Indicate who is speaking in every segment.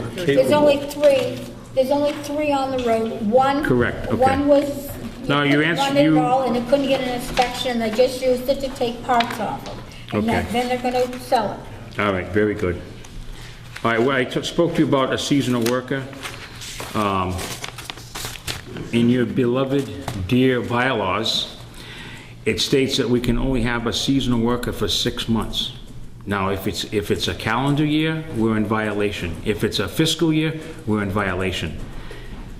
Speaker 1: There's only three, there's only three on the road. One.
Speaker 2: Correct, okay.
Speaker 1: One was.
Speaker 2: No, you
Speaker 1: one
Speaker 2: answered-
Speaker 1: at
Speaker 2: you-
Speaker 1: all, And it couldn't get an inspection, they just used it to take parts off it. And
Speaker 2: Okay.
Speaker 1: that- then they're gonna sell it.
Speaker 2: All right, very good. All right, well, I t- spoke to you about a seasonal worker. Um, In your beloved dear bylaws, it states that we can only have a seasonal worker for six months. Now, if it's, if it's a calendar year, we're in violation. If it's a fiscal year, we're in violation.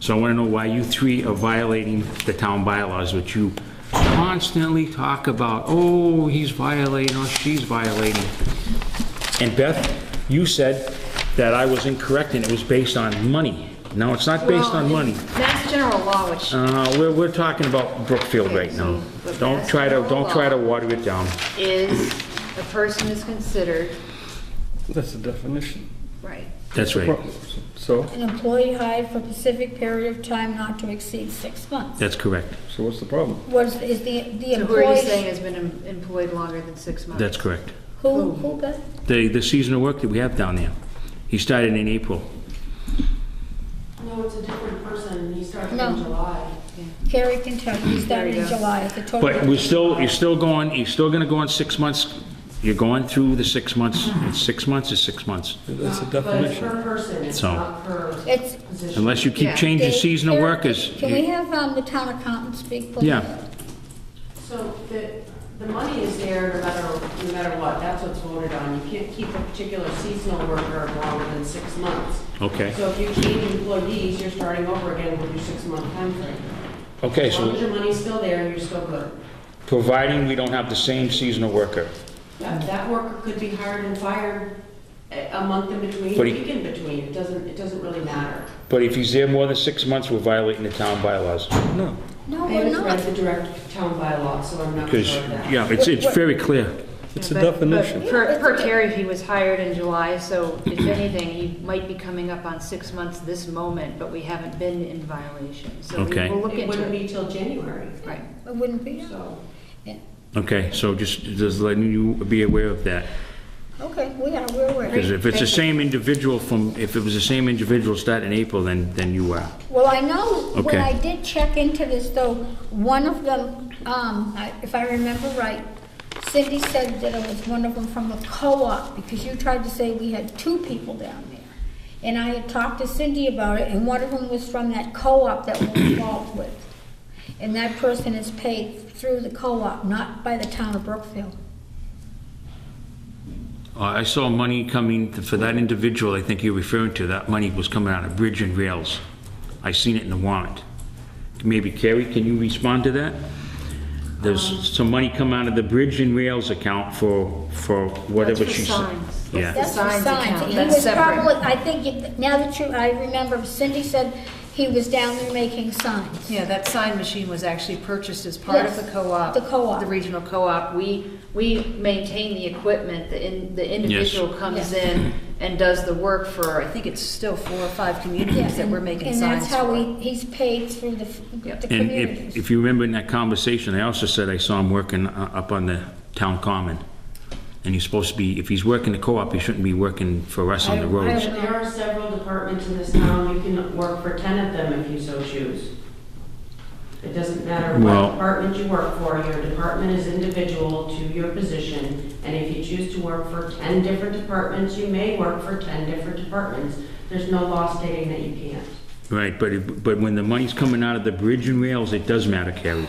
Speaker 2: So I want to know why you three are violating the town bylaws, which you constantly talk about, oh, he's violating, or she's violating. And Beth, you said that I was incorrect and it was based on money. No, it's not based on money.
Speaker 3: Mass general law, which,
Speaker 2: Uh, we're, we're talking about Brookfield right now. Don't try to, don't try to water it down.
Speaker 3: is, a person is considered,
Speaker 4: That's the definition.
Speaker 3: right,
Speaker 2: That's right.
Speaker 4: So,
Speaker 1: An employee hired for a specific period of time not to exceed six months.
Speaker 2: That's correct.
Speaker 4: so what's the problem?
Speaker 1: Was, is the, the
Speaker 3: who are you saying
Speaker 1: employee,
Speaker 3: has been em- employed longer than six months?
Speaker 2: That's correct.
Speaker 1: who, who got?
Speaker 2: The, the seasonal work that we have down there. He started in April.
Speaker 5: No, it's a different person, he started in
Speaker 1: No.
Speaker 5: July.
Speaker 1: Carrie can tell, you, he started
Speaker 3: There
Speaker 1: in
Speaker 3: you go.
Speaker 1: July, the total.
Speaker 2: But we're still, you're still going, you're still gonna go on six months. You're going through the six months. It's six months is six months.
Speaker 4: That's the
Speaker 5: But it's
Speaker 4: definition.
Speaker 5: per person, it's
Speaker 2: So-
Speaker 5: not per
Speaker 1: It's-
Speaker 5: position.
Speaker 2: Unless you keep
Speaker 3: Yeah.
Speaker 2: changing
Speaker 1: Dave,
Speaker 2: seasonal
Speaker 1: Carrie,
Speaker 2: workers.
Speaker 1: Can we have, um, the town accountant speak, please?
Speaker 2: Yeah.
Speaker 5: So the, the money is there no matter, no matter what, that's what's voted on. You can't keep a particular seasonal worker longer than six months.
Speaker 2: Okay.
Speaker 5: So if you change employees, you're starting over again with your six-month timeframe.
Speaker 2: Okay,
Speaker 5: As long as
Speaker 2: so
Speaker 5: your money's still there, you're still good.
Speaker 2: providing we don't have the same seasonal worker.
Speaker 5: That that worker could be hired and fired a a month in between, a
Speaker 2: But he-
Speaker 5: week in between, it doesn't, it doesn't really matter.
Speaker 2: But if he's there more than six months, we're violating the town bylaws.
Speaker 4: No.
Speaker 1: No,
Speaker 5: I
Speaker 1: Oh, we're
Speaker 5: haven't
Speaker 1: not.
Speaker 5: read the direct town bylaw, so I'm not
Speaker 2: Because,
Speaker 5: sure of that.
Speaker 2: yeah, it's, it's very clear.
Speaker 4: It's a
Speaker 3: But- but
Speaker 4: definition.
Speaker 3: Per per Terry, he was hired in July, so if anything, he might be coming up on six months this moment, but we haven't been in violation, so we
Speaker 2: Okay.
Speaker 3: will look
Speaker 5: It wouldn't
Speaker 3: into it.
Speaker 5: be till January,
Speaker 3: Right.
Speaker 1: It wouldn't be,
Speaker 5: so.
Speaker 2: Okay, so just, just letting you be aware of that.
Speaker 1: okay, we are, we're aware.
Speaker 2: Because if it's the same individual from, if it was the same individual starting in April, then, then you are.
Speaker 1: Well, I know, when
Speaker 2: Okay.
Speaker 1: I did check into this though, one of them, um, I- if I remember right, Cindy said that it was one of them from the co-op, because you tried to say we had two people down there. And I had talked to Cindy about it, and one of them was from that co-op that we're involved with. And that person is paid through the co-op, not by the town of Brookfield.
Speaker 2: Uh, I saw money coming for that individual I think you're referring to. That money was coming out of Bridge and Rails. I seen it in the warrant. Maybe Carrie, can you respond to that?
Speaker 3: Um,
Speaker 2: There's some money come out of the Bridge and Rails account for, for whatever
Speaker 3: for
Speaker 2: she said.
Speaker 3: signs.
Speaker 2: Yeah.
Speaker 1: That's the
Speaker 3: signs
Speaker 1: signs.
Speaker 3: account,
Speaker 1: He
Speaker 3: that's
Speaker 1: was
Speaker 3: separate.
Speaker 1: probably, I think, it- now that you, I remember Cindy said he was down there making signs.
Speaker 3: Yeah, that sign machine was actually purchased as part of
Speaker 1: Yes,
Speaker 3: the co-op.
Speaker 1: the co-op.
Speaker 3: The regional co-op. We, we maintain the equipment, the, in- the individual
Speaker 1: Yes.
Speaker 3: comes in and does the work for, I think it's still four or five
Speaker 1: Yeah,
Speaker 3: communities that we're making
Speaker 1: And that's
Speaker 3: signs
Speaker 1: how
Speaker 3: for.
Speaker 1: we, he's paid through the, f-
Speaker 3: Yep.
Speaker 1: the
Speaker 2: And if,
Speaker 1: community.
Speaker 2: if you remember in that conversation, I also said I saw him working uh, up on the town common. And he's supposed to be, if he's working the co-op, he shouldn't be working for us on the
Speaker 1: I- I-
Speaker 2: roads.
Speaker 5: There are several departments in this town, you can work for 10 of them if you so choose. It doesn't matter
Speaker 2: Well-
Speaker 5: what department you work for, your department is individual to your position, and if you choose to work for 10 different departments, you may work for 10 different departments. There's no law stating that you can't.
Speaker 2: Right, but, it- but when the money's coming out of the bridge and rails, it does matter, Carrie.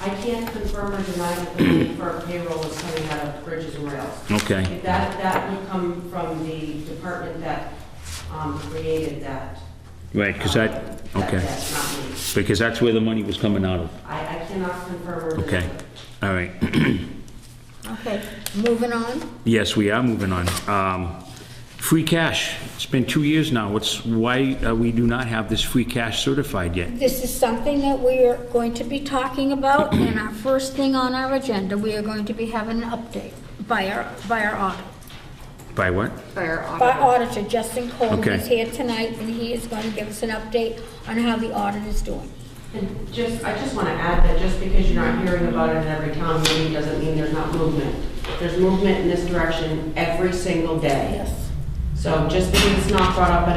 Speaker 5: I can't confirm or deny that the money for payroll is coming out of bridges and rails.
Speaker 2: Okay,
Speaker 5: If That, that would come from the department that um, created that.
Speaker 2: right, because
Speaker 5: um,
Speaker 2: that, okay,
Speaker 5: That's not me.
Speaker 2: because that's where the money was coming out of.
Speaker 5: I, I cannot confirm or deny.
Speaker 2: Okay, all right.
Speaker 1: Okay, moving on.
Speaker 2: Yes, we are moving on. Um, Free cash, it's been two years now, what's, why uh, we do not have this free cash certified yet?
Speaker 1: This is something that we are going to be talking about, and our first thing on our agenda, we are going to be having an update by our, by our audit.
Speaker 2: By what?
Speaker 3: By our
Speaker 1: By
Speaker 3: auditor.
Speaker 1: auditor, Justin Coleman
Speaker 2: Okay.
Speaker 1: is here tonight, and he is going to give us an update on how the audit is doing.
Speaker 5: And just, I just want to add that just because you're not hearing about it in every town meeting doesn't mean there's not movement. There's movement in this direction every single day.
Speaker 1: Yes.
Speaker 5: So just because it's not brought up at